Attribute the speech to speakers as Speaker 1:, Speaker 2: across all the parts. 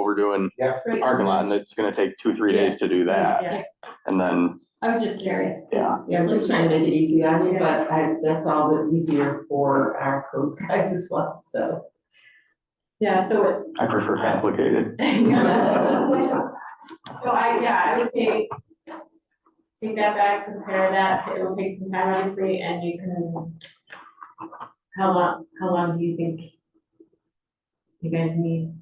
Speaker 1: we're doing
Speaker 2: Yeah.
Speaker 1: the parking lot, and it's gonna take two, three days to do that.
Speaker 3: Yeah.
Speaker 1: And then,
Speaker 3: I was just curious.
Speaker 1: Yeah.
Speaker 4: Yeah, we're just trying to make it easy on you, but I, that's all the easier for our code guy as well, so.
Speaker 3: Yeah, so it.
Speaker 1: I prefer complicated.
Speaker 3: So I, yeah, I would say, take that back, compare that, to- it'll take some time, obviously, and you can, how long, how long do you think you guys need?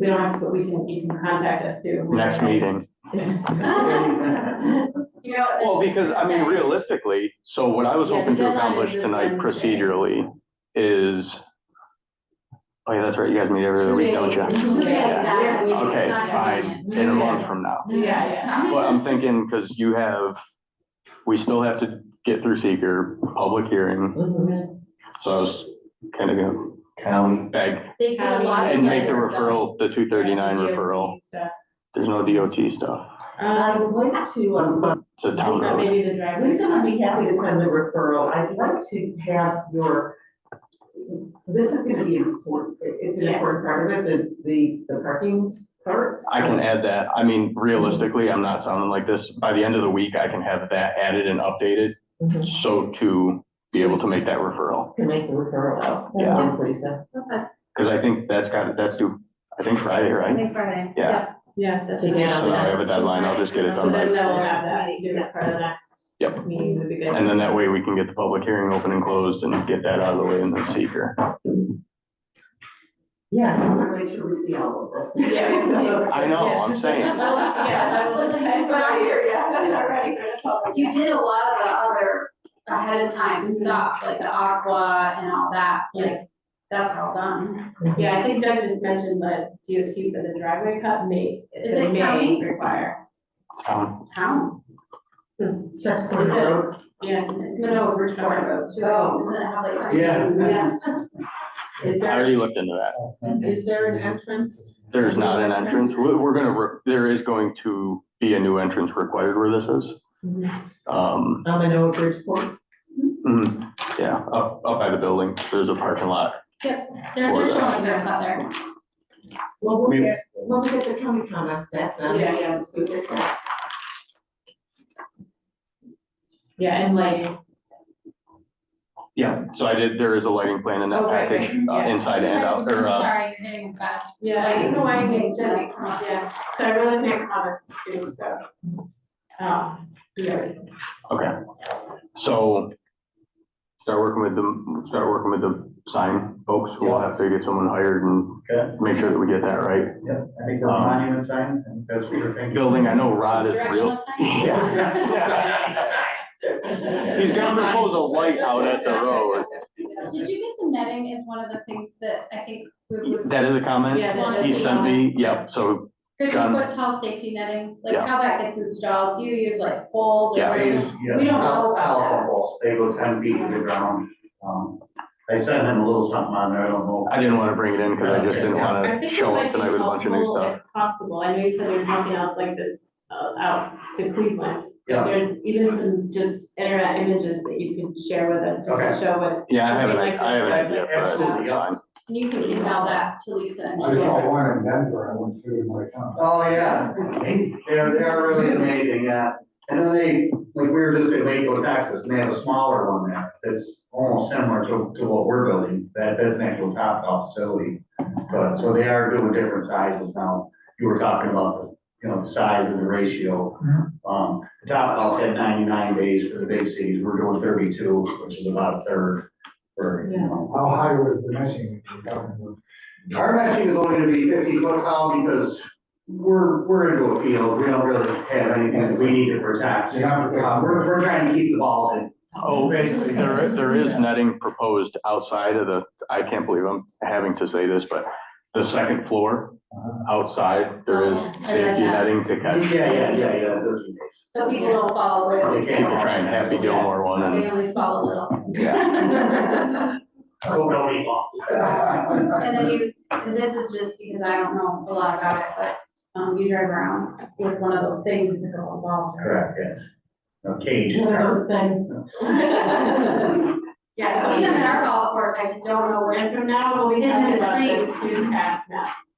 Speaker 3: We don't have to, but we can, you can contact us too.
Speaker 1: Next meeting.
Speaker 3: You know.
Speaker 1: Well, because, I mean, realistically, so what I was
Speaker 3: Yeah, the
Speaker 1: hoping to
Speaker 3: deadline is
Speaker 1: accomplish
Speaker 3: this
Speaker 1: tonight
Speaker 3: Wednesday.
Speaker 1: procedurally is, oh yeah, that's right, you guys meet every other week, don't you? Okay, fine, in a month from now.
Speaker 3: Yeah, yeah.
Speaker 1: But I'm thinking, because you have, we still have to get through seeker, public hearing, so I was kind of gonna
Speaker 2: County.
Speaker 1: beg
Speaker 5: They get a lot of.
Speaker 1: and make the
Speaker 5: letters, though.
Speaker 1: referral, the two thirty-nine
Speaker 3: DOT
Speaker 1: referral.
Speaker 3: stuff.
Speaker 1: There's no DOT stuff.
Speaker 4: I
Speaker 3: Um,
Speaker 4: would like to, um,
Speaker 1: It's a town
Speaker 3: or
Speaker 1: road.
Speaker 3: maybe the driver.
Speaker 4: Lisa would be happy to send a referral. I'd like to have your, this is gonna be important, It- it's an
Speaker 3: Yeah.
Speaker 4: important part of it, the, the, the parking parts.
Speaker 1: I can add that. I mean, realistically, I'm not sounding like this. By the end of the week, I can have that added and updated.
Speaker 4: Mhm.
Speaker 1: So to be able to make that referral,
Speaker 4: Can make the referral out. uh,
Speaker 1: Yeah.
Speaker 4: Thank you, Lisa.
Speaker 5: Okay,
Speaker 1: because I think that's got, that's due, I think Friday,
Speaker 5: I
Speaker 1: right?
Speaker 5: think Friday.
Speaker 1: Yeah.
Speaker 3: Yeah, that's.
Speaker 4: To
Speaker 3: right.
Speaker 4: get
Speaker 1: So now I have a deadline. I'll just get it
Speaker 3: So
Speaker 1: done
Speaker 3: then uh,
Speaker 1: by,
Speaker 5: that-
Speaker 3: they'll have that too, that's part of the next.
Speaker 1: Yep.
Speaker 3: Meeting would be good.
Speaker 1: and then that way we can get the public hearing open and closed and get that out of the way and then seeker.
Speaker 4: Yes, I want to make sure we see all of this.
Speaker 3: Yeah, we can see what's-
Speaker 1: I know, I'm saying.
Speaker 3: Yeah, that was-
Speaker 4: But I hear
Speaker 3: I'm
Speaker 4: ya.
Speaker 3: not ready for the public
Speaker 5: You
Speaker 3: yet.
Speaker 5: did a lot of the other ahead of time stuff, like the aqua and all that, like, that's all done.
Speaker 3: Yeah, I think Doug just mentioned that DOT for the driveway cut may, it's
Speaker 5: Is
Speaker 3: a
Speaker 5: it
Speaker 3: may
Speaker 5: county?
Speaker 3: require.
Speaker 1: It's town.
Speaker 5: Town,
Speaker 4: Steps going down.
Speaker 3: Yeah, because it's been over short of.
Speaker 4: Oh.
Speaker 5: isn't it how they?
Speaker 2: Yeah.
Speaker 5: Yeah.
Speaker 4: Is
Speaker 1: I
Speaker 4: there,
Speaker 1: already looked into that.
Speaker 4: is there an entrance?
Speaker 1: There's not an entrance. We're, we're gonna, re- there is going to be a new entrance required where this is. Um,
Speaker 4: On the Noah Bridgeport?
Speaker 1: Mm, yeah, up, up by the building, there's a parking lot.
Speaker 5: They're,
Speaker 1: Or uh,
Speaker 5: they're
Speaker 1: that.
Speaker 5: showing their cut there.
Speaker 4: Well, we'll
Speaker 1: We-
Speaker 4: get, we'll get the county comments back then.
Speaker 3: Yeah, yeah.
Speaker 4: So there's that.
Speaker 3: Yeah, and lighting.
Speaker 1: Yeah. So I did, there is a lighting plan in that
Speaker 3: Oh, right, right,
Speaker 1: package, uh,
Speaker 3: yeah.
Speaker 1: inside and out, or, uh,
Speaker 5: Sorry, you're getting bad.
Speaker 3: Yeah, I don't know why I made that, yeah, so I really have no comments too, so. Um, yeah.
Speaker 1: okay. So start working with the, start working with the sign folks, we'll have to get someone hired and
Speaker 2: Okay,
Speaker 1: make sure that we get that right.
Speaker 2: yeah, I think the
Speaker 1: Um,
Speaker 2: monument sign, and that's what we're thinking.
Speaker 1: Building, I know Rod is real.
Speaker 5: Directional sign?
Speaker 1: Yeah. He's gonna propose a light out at the road.
Speaker 5: Did you get the netting is one of the things that I think we would.
Speaker 1: That is a comment?
Speaker 3: Yeah, that
Speaker 5: is
Speaker 1: He
Speaker 5: a
Speaker 1: sent me, yep, so,
Speaker 5: Fifty
Speaker 1: John-
Speaker 5: foot tall safety netting, like
Speaker 1: Yeah.
Speaker 5: how that gets installed, do you use like poles or?
Speaker 1: Yeah.
Speaker 5: We don't know about that.
Speaker 2: Telephone, they go ten feet to the ground. Um, I sent him a little something on there, I don't know.
Speaker 1: I didn't wanna bring it in because I just didn't
Speaker 3: I
Speaker 1: wanna
Speaker 3: think
Speaker 1: uh,
Speaker 3: it
Speaker 1: show up
Speaker 3: might be
Speaker 1: tonight with a bunch of new
Speaker 3: helpful
Speaker 1: stuff.
Speaker 3: if possible, I know you said there's nothing else like this uh, out to Cleveland. but
Speaker 2: Yeah.
Speaker 3: There's even some just internet images that you could share with us, just to show what.
Speaker 1: Yeah, I have an,
Speaker 3: something like
Speaker 1: I have an
Speaker 3: this
Speaker 1: idea
Speaker 3: looks
Speaker 1: for that
Speaker 2: Absolutely, yeah.
Speaker 1: time.
Speaker 5: And you can email that to Lisa and.
Speaker 6: I saw one in Denver, I went through my um, son.
Speaker 2: Oh, yeah, they're, they're really amazing, yeah. And then they, like, we were just in Waco, Texas, and they have a smaller one there, that's almost similar to, to what we're building, that, that's an actual top golf facility. But, so they are doing different sizes now, you were talking about, the, you know, the size and the ratio. Um, the top golf had ninety-nine days for the big cities, we're doing thirty-two, which is about a third for, you know,
Speaker 6: How high was the machine? you got?
Speaker 2: our meshing is only gonna be fifty foot tall because we're, we're into a field, we don't really have anything that we need to protect.
Speaker 6: You're not protecting-
Speaker 2: Uh, We're, we're trying to keep the balls in.
Speaker 1: Oh,
Speaker 2: basically.
Speaker 1: There, there is netting proposed outside of the, I can't believe I'm having to say this, but the second floor, outside, there is
Speaker 5: Oh, I read
Speaker 1: safety
Speaker 5: that.
Speaker 1: netting to
Speaker 2: Yeah,
Speaker 1: catch.
Speaker 2: yeah, yeah, yeah, just in case.
Speaker 5: So people don't follow
Speaker 2: They
Speaker 5: little,
Speaker 2: can't-
Speaker 1: People trying Happy Gilmore one and,
Speaker 5: they only follow little.
Speaker 2: So don't eat balls.
Speaker 5: And then you, and this is just because I don't know a lot about it, but, um, you drive around with one of those things that go involved.
Speaker 2: Correct, yes. No cage.
Speaker 4: One of those things.
Speaker 3: Yeah,
Speaker 5: Yes, even in our golf course, I just don't know where.
Speaker 3: And from now, we'll be
Speaker 5: It's in
Speaker 3: talking
Speaker 5: the
Speaker 3: about
Speaker 5: trees.
Speaker 3: this huge ass map.